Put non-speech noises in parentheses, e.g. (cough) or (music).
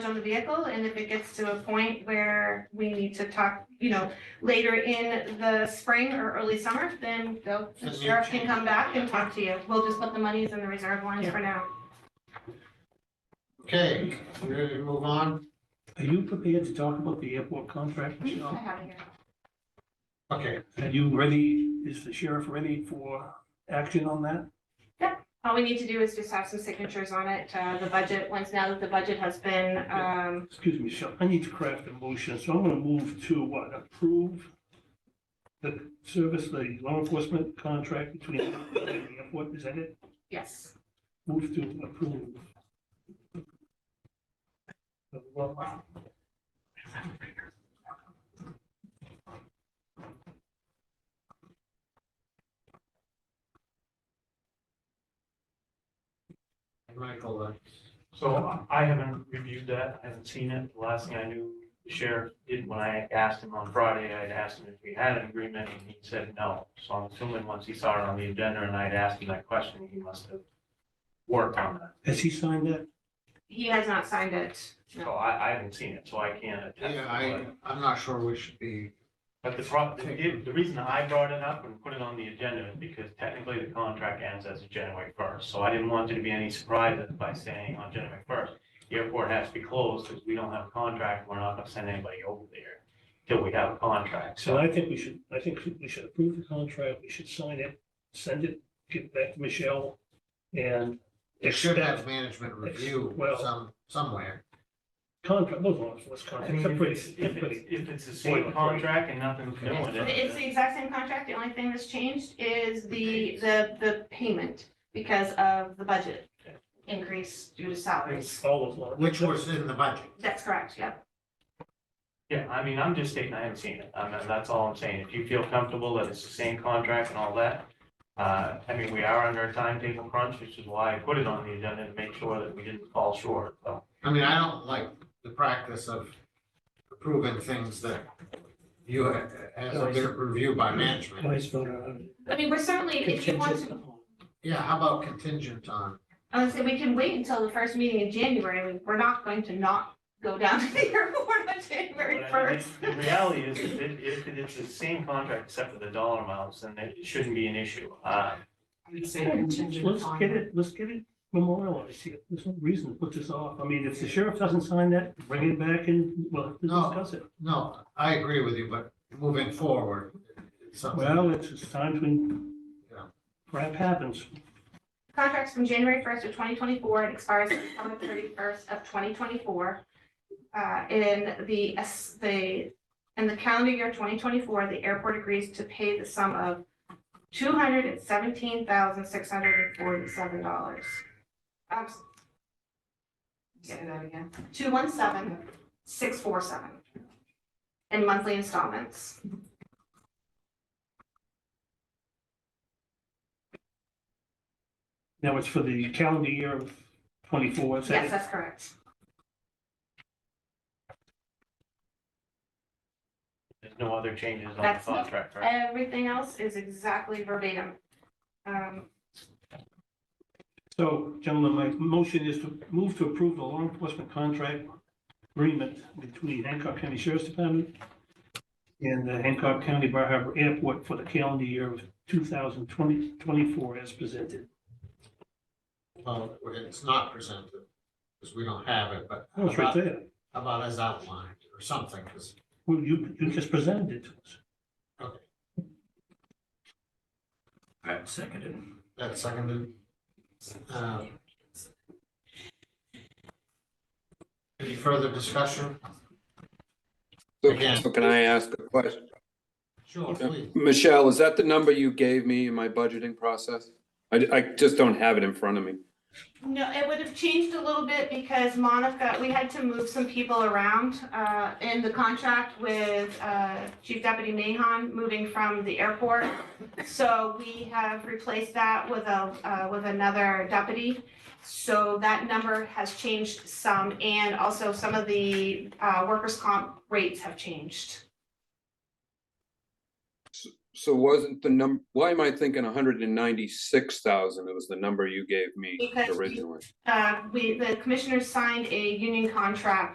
on the vehicle, and if it gets to a point where we need to talk, you know, later in the spring or early summer, then the Then you sheriff can change come it. back and talk to you. We'll just put the monies in the reserve lines for now. Okay, we ready to move on? Are you prepared to talk about the airport contract, I Michelle? have it here. Okay, Are you ready, is the sheriff ready for action on that? All we need to do is just have some signatures on it, uh, the budget, once now that the budget has been, um, Excuse me, Michelle, I need to craft a motion, so I'm gonna move to what, approve the service, the law enforcement contract between the airport, is that it? yes. Move to approve. Well, Michael, uh, So I haven't reviewed that, I haven't seen it. The last thing I knew, the sheriff did, when I asked him on Friday, I'd asked him if we had an agreement, and he said no. So I'm assuming once he saw it on the agenda and I'd asked him that question, he must have worked on that. Has he signed that? He has not signed it. So I, I haven't seen it, so I can't attest. yeah, to I, it. I'm not sure we should be, But the pro, the, the reason I brought it up and put it on the agenda is because technically the contract ends as of January first. So I didn't want there to be any surprises by saying on January first, the airport has to be closed because we don't have a contract. We're not gonna send anybody over there till we have a contract. So So I think we should, I think we should approve the contract, we should sign it, send it, give it back to Michelle, and it should have expect management review Well- some, somewhere. contract, those law enforcement I contracts mean, are if pretty, it's, if it's, pretty- if it's the same contract and nothing's new It's with it. it's the exact same contract, the only thing that's changed is the, the, the payment because of the budget increase due to salaries. it's all of law. Which was in the budget. That's correct, yep. Yeah, I mean, I'm just stating I haven't seen it. I mean, that's all I'm saying. If you feel comfortable that it's the same contract and all that, uh, I mean, we are under a timetable crunch, which is why I put it on the agenda to make sure that we didn't fall short, so. I mean, I don't like the practice of approving things that you, ha- as a bit of review by management. Vice voter, uh, I mean, we're certainly, if you want contingent to, upon. Yeah, how about contingent on, I would say we can wait until the first meeting in January. We- We're not going to not go down (laughs) to the airport on January But I mean, first. The reality is, that it- if it is the same contract except for the dollar amounts, then it shouldn't be an issue. Uh, I would say contingent Let's upon. get it, let's get it memorialized here, there's no reason to put this off, I mean, if the sheriff doesn't sign that, bring it back and, well, No. discuss it. no, I agree with you, but moving forward, it's something, Well, it's, it's time to, Yeah. crap happens. Contracts from January first of twenty twenty-four and expires September thirty-first of twenty twenty-four. Uh, in the, S- the, in the calendar year twenty twenty-four, the airport agrees to pay the sum of two hundred and seventeen thousand, six hundred and forty-seven dollars. Um, Say that again. two one seven, six four seven. In monthly installments. Now it's for the calendar year of twenty-four, is that Yes, it? that's correct. There's no other changes on the That's it. contract, right? Everything else is exactly verbatim. Um, So, gentlemen, my motion is to move to approve the law enforcement contract agreement between Hancock County Sheriff's Department and the Hancock County Bar Harbor Airport for the calendar year of 2020, 24 as presented. well, it's not presented, because we don't have it, but Oh, it's right there. how about as outlined or something, because Well, you, you just presented it to us. Okay. Right, seconded. that's seconded. Uh, Any further discussion? So Again. so can I ask a question? Sure, please. Michelle, is that the number you gave me in my budgeting process? I, I just don't have it in front of me. No, it would have changed a little bit because Monica, we had to move some people around uh, in the contract with uh, Chief Deputy Mahon moving from the airport. So we have replaced that with a, uh, with another deputy. So that number has changed some and also some of the uh, workers' comp rates have changed. So wasn't the num, why am I thinking hundred and ninety-six thousand? It was the number you gave me Because you- originally. Uh, We, the commissioners signed a union contract